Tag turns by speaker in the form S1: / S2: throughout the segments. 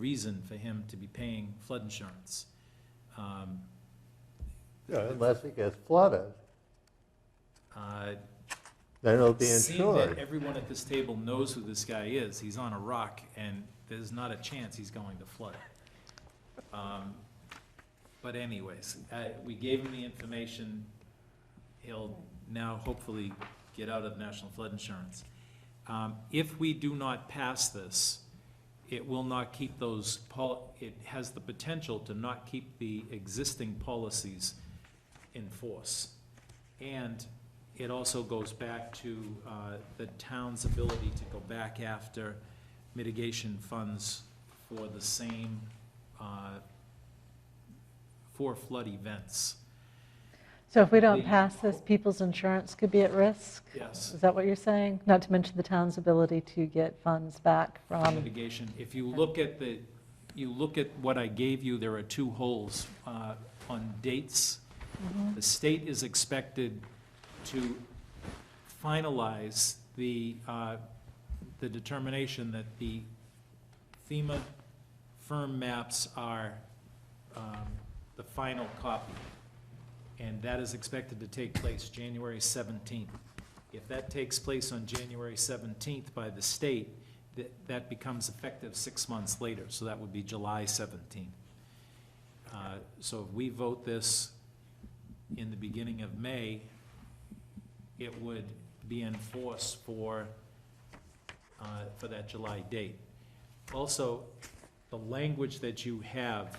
S1: reason for him to be paying flood insurance. Um,
S2: Yeah, Unless it gets flooded,
S1: uh,
S2: then it'll be
S1: Seeing that
S2: insured.
S1: everyone at this table knows who this guy is, he's on a rock, and there's not a chance he's going to flood. Um, But anyways, uh, we gave him the information, he'll now hopefully get out of national flood insurance. Um, If we do not pass this, it will not keep those, pol- it has the potential to not keep the existing policies in force. And it also goes back to uh, the town's ability to go back after mitigation funds for the same, uh, for flood events.
S3: So if we don't
S1: The-
S3: pass this, people's insurance could be at risk?
S1: Yes,
S3: Is that what you're saying? Not to mention the town's ability to get funds back from,
S1: mitigation. If you look at the, you look at what I gave you, there are two holes uh, on dates. The state is expected to finalize the, uh, the determination that the FEMA firm maps are um, the final copy. And that is expected to take place January 17th. If that takes place on January 17th by the state, that, that becomes effective six months later, so that would be July 17th. Uh, So if we vote this in the beginning of May, it would be in force for, uh, for that July date. Also, the language that you have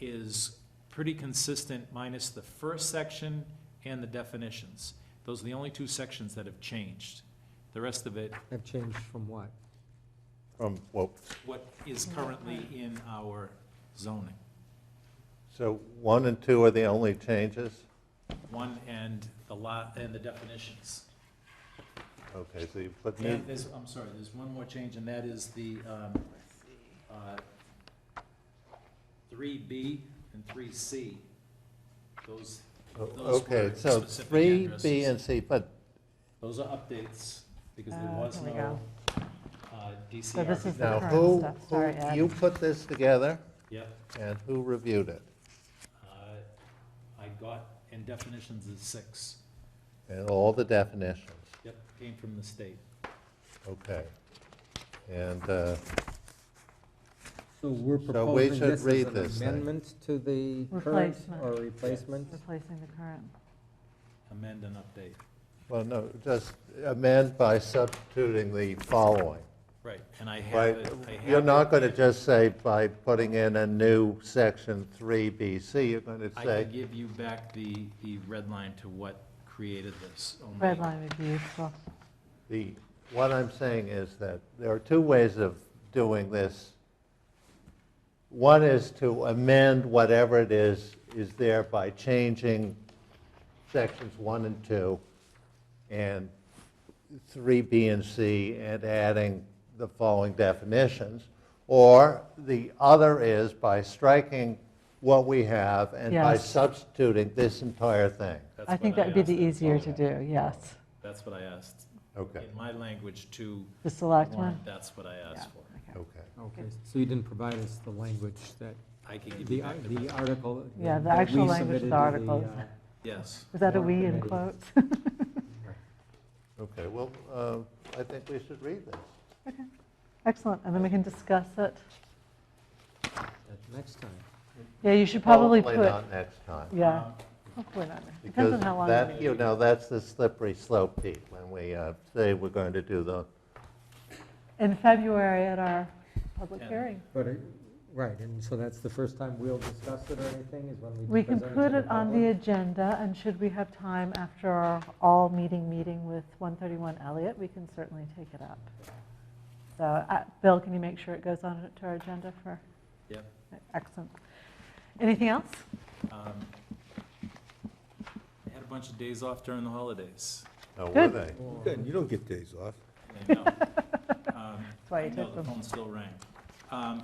S1: is pretty consistent minus the first section and the definitions. Those are the only two sections that have changed. The rest of it,
S4: Have changed from what?
S2: From, well,
S1: what is currently in our zoning.
S2: so one and two are the only changes?
S1: One and the lot, and the definitions.
S2: Okay, so you put new,
S1: And there's, I'm sorry, there's one more change, and that is the, um, uh, three B and three C. Those, those
S2: Oh, okay,
S1: were
S2: so
S1: specific
S2: three, B,
S1: addresses.
S2: and C, but,
S1: Those are updates, because there
S3: Ah,
S1: was
S3: here we
S1: no, uh, DCR.
S3: So this is the
S2: now,
S3: current
S2: who,
S3: stuff,
S2: who,
S3: sorry, Ed.
S2: you put this together,
S1: Yep,
S2: and who reviewed it?
S1: uh, I got, and definitions is six,
S2: And all the definitions,
S1: yep, came from the state.
S2: okay. And, uh,
S4: So we're
S2: So we
S4: proposing
S2: should
S4: this
S2: read
S4: as
S2: this
S4: an
S2: thing.
S4: amendment to the current
S3: Replacement.
S4: or replacement?
S3: replacing the current.
S1: Amend and update.
S2: well, no, just amend by substituting the following.
S1: Right, and I have
S2: Right,
S1: it, I have.
S2: you're
S1: it.
S2: not going to just say by putting in a new section 3BC, you're going to
S1: I
S2: say,
S1: can give you back the, the red line to what created this. only-
S3: Red line would be useful.
S2: the, what I'm saying is that there are two ways of doing this. One is to amend whatever it is, is there by changing sections 1 and 2 and 3B and C and adding the following definitions. Or the other is by striking what we have and by
S3: Yes.
S2: substituting this entire thing.
S1: That's
S3: I think
S1: what
S3: that would be
S1: asked
S3: the
S1: them.
S3: easier to do, yes.
S1: That's what I asked.
S2: Okay,
S1: In my language to
S3: The selectmen?
S1: warrant, that's what I asked for.
S3: Okay.
S2: okay.
S4: Okay, so you didn't provide us the language that,
S1: I can give
S4: the, uh,
S1: you back the,
S4: the article.
S3: Yeah, the
S4: that we
S3: actual language of the
S4: submitted to
S3: article.
S4: uh,
S1: yes.
S3: Was that a "we" in
S4: Warrant committee.
S3: quotes?
S2: Okay, well, uh, I think we should read this.
S3: Excellent, and then we can discuss it.
S4: at Next time.
S3: Yeah, you should probably put,
S2: Hopefully not next time.
S3: yeah,
S1: Um,
S3: hopefully not. Depends
S2: Because
S3: on how long.
S2: that,
S3: we-
S2: you know, that's the slippery slope, Pete, when we uh, say we're going to do the,
S3: In February at our public
S1: Yeah.
S3: hearing.
S4: But, it- right, and so that's the first time we'll discuss it or anything is when we
S3: We can
S4: present it to
S3: put it on the
S4: public?
S3: agenda, and should we have time after our all-meeting meeting with 131 Elliott, we can certainly take it up. So, uh, Bill, can you make sure it goes on to our agenda for?
S1: Yep.
S3: Excellent. Anything else?
S1: um, I had a bunch of days off during the holidays.
S2: oh, were
S3: Good.
S2: they?
S5: Good, you don't get days off.
S1: I know. Um,
S3: That's why you
S1: No,
S3: took
S1: the
S3: them.
S1: phone still rang. Um,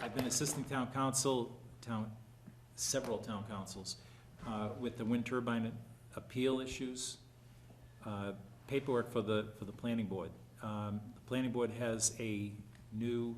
S1: I've been assisting town council, town, several town councils, uh, with the wind turbine appeal issues, uh, paperwork for the, for the planning board. Um, The planning board has a new